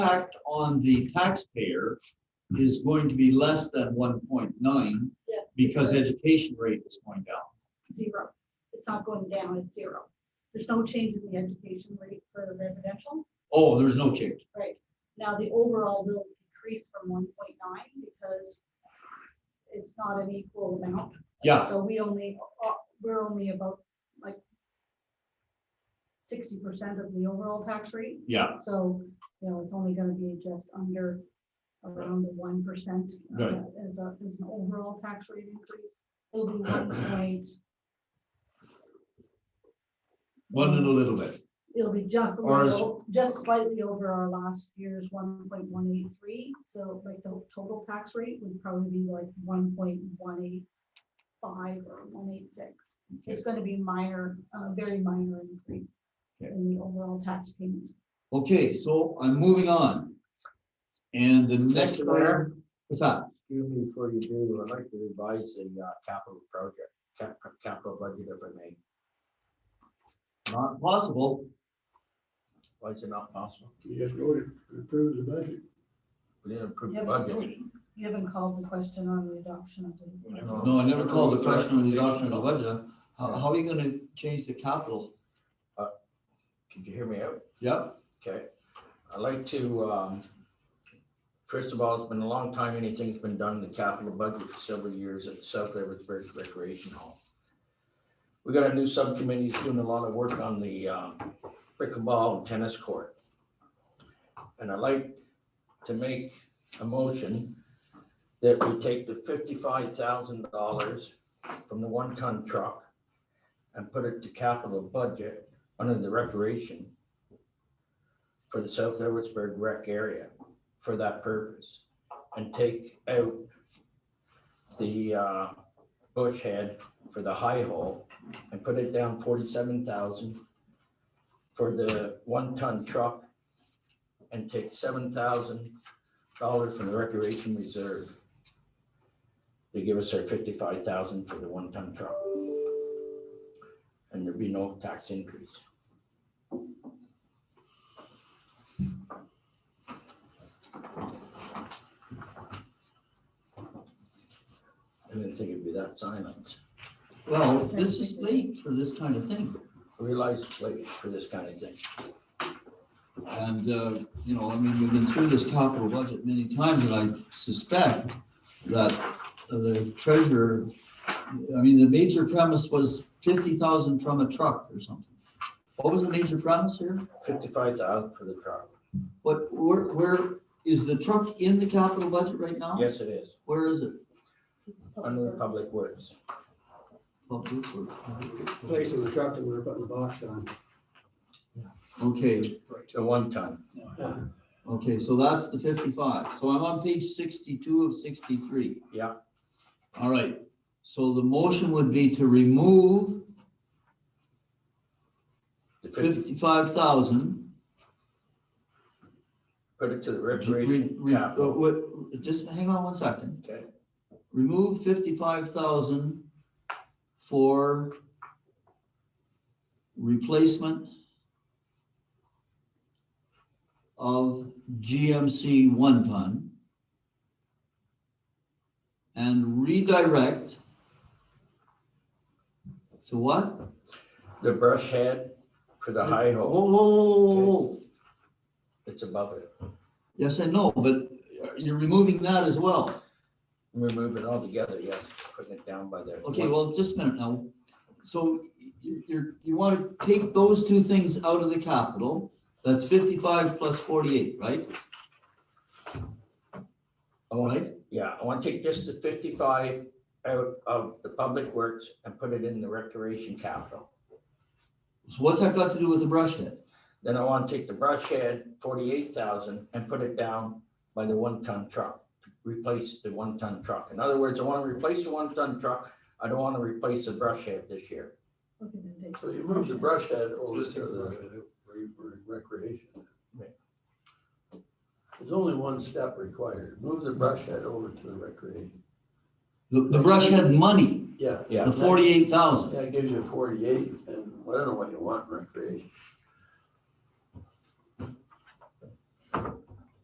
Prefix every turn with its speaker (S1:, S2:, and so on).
S1: impact on the taxpayer is going to be less than one point nine
S2: Yes.
S1: because education rate is going down.
S2: Zero. It's not going down, it's zero. There's no change in the education rate for the residential.
S1: Oh, there's no change.
S2: Right. Now, the overall will decrease from one point nine because it's not an equal amount.
S1: Yeah,
S2: So we only, uh, we're only about like sixty percent of the overall tax rate.
S1: yeah,
S2: So, you know, it's only gonna be just under around the one percent. uh,
S1: Right.
S2: As a, as an overall tax rate increase, it'll be one point.
S1: one and a little bit.
S2: It'll be just, a
S1: Or is-
S2: little- just slightly over our last year's one point one eight three, so like the total tax rate would probably be like one point one eight five or one eight six. It's gonna be minor, uh, very minor increase
S1: Okay.
S2: in the overall tax payment.
S1: Okay, so I'm moving on. And the next
S3: Mr. Mayor?
S1: item, what's that?
S3: Excuse me before you do, I'd like to revise the uh, capital project, cap- capital budget if I may.
S1: Not possible.
S3: Why is it not possible?
S4: You just voted to approve the budget.
S3: We didn't approve
S2: You
S3: the
S2: haven't,
S3: budget.
S2: voted. you haven't called the question on the adoption of the.
S1: No, I never called the question on the adoption of the budget. How, how are you gonna change the capital?
S3: Could you hear me out?
S1: Yep,
S3: Okay. I'd like to, um, first of all, it's been a long time anything's been done in the capital budget for several years at South Eversburg Recreation Hall. We got a new subcommittee that's doing a lot of work on the um, pickleball and tennis court. And I'd like to make a motion that we take the fifty-five thousand dollars from the one-ton truck and put it to capital budget under the recreation for the South Edwardsburg rec area for that purpose and take out the uh, bush head for the high hole and put it down forty-seven thousand for the one-ton truck and take seven thousand dollars from the recreation reserve. They give us our fifty-five thousand for the one-ton truck. And there'd be no tax increase. I didn't think it'd be that silent.
S1: well, this is late for this kind of thing.
S3: I realize it's late for this kind of thing.
S1: And, uh, you know, I mean, we've been through this capital budget many times, and I suspect that the treasurer, I mean, the major premise was fifty thousand from a truck or something. What was the major premise here?
S3: Fifty-five thousand for the truck.
S1: What, where, where, is the truck in the capital budget right now?
S3: Yes, it is,
S1: Where is it?
S3: under the public works.
S1: Public Works.
S4: Place in the truck that we were putting the box on.
S1: Okay,
S3: The one ton.
S1: okay, so that's the fifty-five. So I'm on page sixty-two of sixty-three.
S3: Yeah.
S1: All right, so the motion would be to remove
S3: The fifty,
S1: fifty-five thousand.
S3: put it to the recreation capital.
S1: uh, Just hang on one second.
S3: Okay.
S1: Remove fifty-five thousand for replacement of GMC one ton and redirect to what?
S3: The brush head for the high hole,
S1: Whoa, whoa, whoa, whoa, whoa.
S3: it's above it.
S1: Yes and no, but you're removing that as well.
S3: Remove it altogether, yes, putting it down by there.
S1: Okay, well, just a minute now. So you, you're, you want to take those two things out of the capital. That's fifty-five plus forty-eight, right?
S3: I
S1: All
S3: want-
S1: right.
S3: Yeah, I want to take just the fifty-five out of the public works and put it in the recreation capital.
S1: So what's that got to do with the brush head?
S3: Then I want to take the brush head, forty-eight thousand, and put it down by the one-ton truck, replace the one-ton truck. In other words, I want to replace the one-ton truck. I don't want to replace the brush head this year.
S2: Okay, then they-
S5: So you move the brush head over to the
S4: the. Recreation.
S5: there's only one step required. Move the brush head over to the recreation.
S1: The, the brush head money,
S5: Yeah.
S3: Yeah.
S1: the forty-eight thousand.
S5: That gives you forty-eight and whatever what you want in recreation.